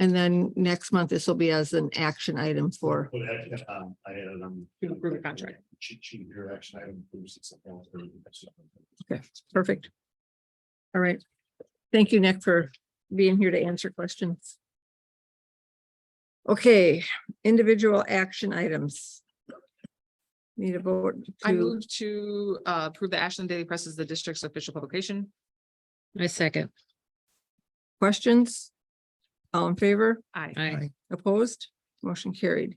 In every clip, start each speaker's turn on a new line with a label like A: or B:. A: And then next month, this will be as an action item for,
B: But I, um, I had it on.
C: To approve a contract.
B: She, she, her action item. approves it, something else, or something.
A: perfect. All right. Thank you, Nick, for being here to answer questions. Okay, individual action items. Need a vote
C: I
A: to,
C: move to uh, approve the Ashland Daily Press as the district's official publication.
D: I second.
A: questions? All in favor?
C: Aye.
D: I,
A: Opposed? Motion carried.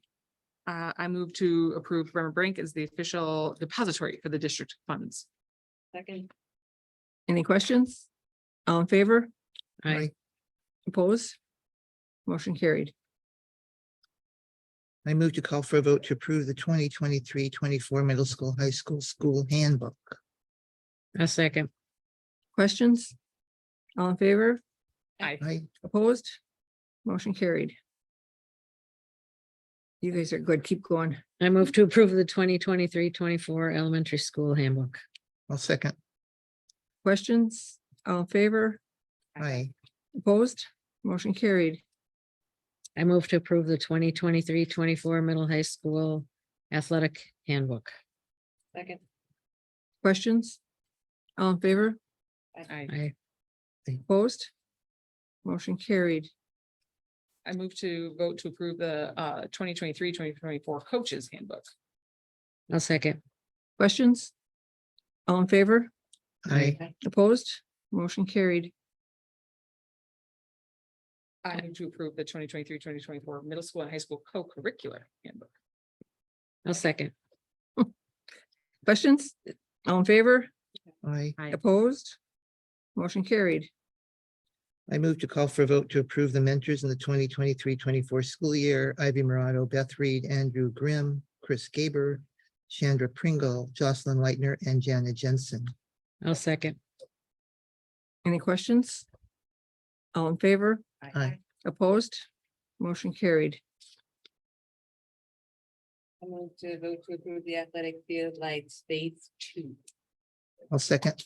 C: Uh, I move to approve Bremer Brink as the official depository for the district funds. Second.
A: Any questions? All in favor?
D: I,
A: Opposed? Motion carried.
E: I move to call for a vote to approve the 2023-24 middle school, high school, school handbook.
D: I second.
A: Questions? All in favor?
C: Aye.
E: I,
A: Opposed? Motion carried. You guys are good. Keep going.
D: I move to approve the 2023-24 elementary school handbook.
E: I'll second.
A: Questions? All in favor?
E: I,
A: Opposed? Motion carried.
D: I move to approve the 2023-24 middle high school athletic handbook.
C: Second.
A: Questions? All in favor?
C: Aye.
D: I,
A: Opposed? Motion carried.
C: I move to vote to approve the uh 2023-2024 coaches handbook.
D: I'll second.
A: Questions? All in favor?
E: I,
A: Opposed? Motion carried.
C: I move to approve the 2023-2024 middle school and high school co-curricular handbook.
D: I'll second.
A: Questions? All in favor?
E: I,
D: Aye.
A: Opposed? Motion carried.
E: I move to call for a vote to approve the mentors in the 2023-24 school year. Ivy Morado, Beth Reed, Andrew Grimm, Chris Gaber, Chandra Pringle, Jocelyn Lightner, and Janet Jensen.
D: I'll second.
A: Any questions? All in favor?
E: Aye.
A: Opposed? Motion carried.
F: I move to vote to approve the athletic field lights phase two.
E: I'll second.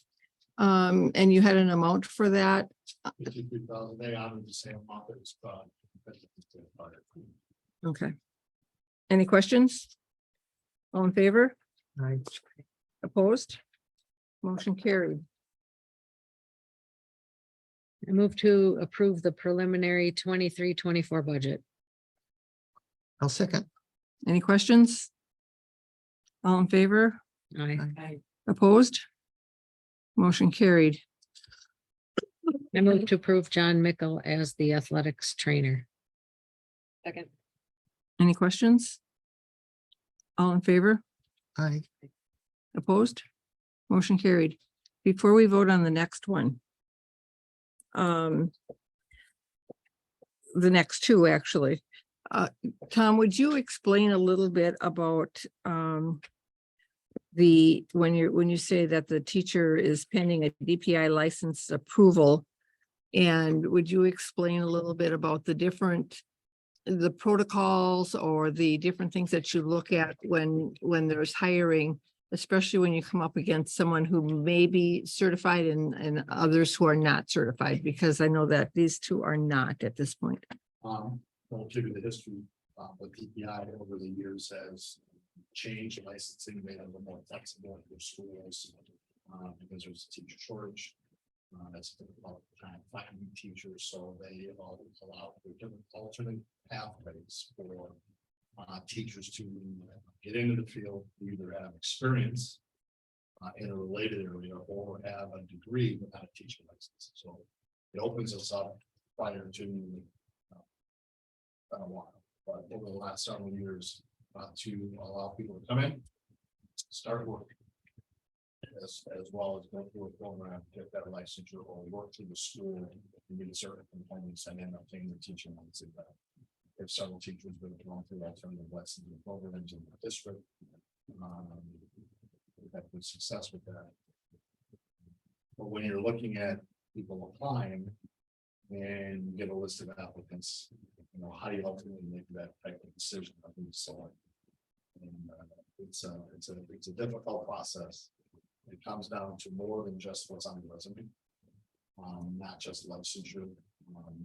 A: Um, and you had an amount for that?
C: Uh.
B: Fifty-three thousand, they honored the same amount that was, uh, that was, uh,
A: Okay. Any questions? All in favor?
E: I,
A: Opposed? Motion carried.
D: I move to approve the preliminary 23-24 budget.
E: I'll second.
A: Any questions? All in favor?
D: I,
A: Opposed? Motion carried.
D: I move to approve John Mickle as the athletics trainer.
F: Second,
A: Any questions? All in favor?
E: I,
A: Opposed? Motion carried. Before we vote on the next one. Um. The next two, actually. Uh, Tom, would you explain a little bit about, um. The, when you're, when you say that the teacher is pending a DPI license approval. And would you explain a little bit about the different the protocols or the different things that you look at when, when there's hiring, especially when you come up against someone who may be certified and, and others who are not certified, because I know that these two are not at this point.
B: Um, well, due to the history, uh, the PPI over the years has changed licensing, made it a little more flexible for schools. Uh, because there's a teacher shortage. Uh, that's been about time finding teachers, so they all allow for different alternate pathways for. Uh, teachers to get into the field, either have experience. Uh, in a related area or have a degree without a teaching license, so it opens us up prior to been a while, but over the last several years, uh, to allow people to come in, start work. As, as well as go through a program, get that licensure or work through the school and get a certain components and end up taking the teaching ones in that. uh, If several teachers been going through alternative licensing programs in the district. um, We've had good success with that. But when you're looking at people applying and you get a list of applicants, you know, how do you ultimately make that type of decision of who to select? And uh, it's a, it's a, it's a difficult process. It comes down to more than just what's on the resume. Um, not just licensure, um,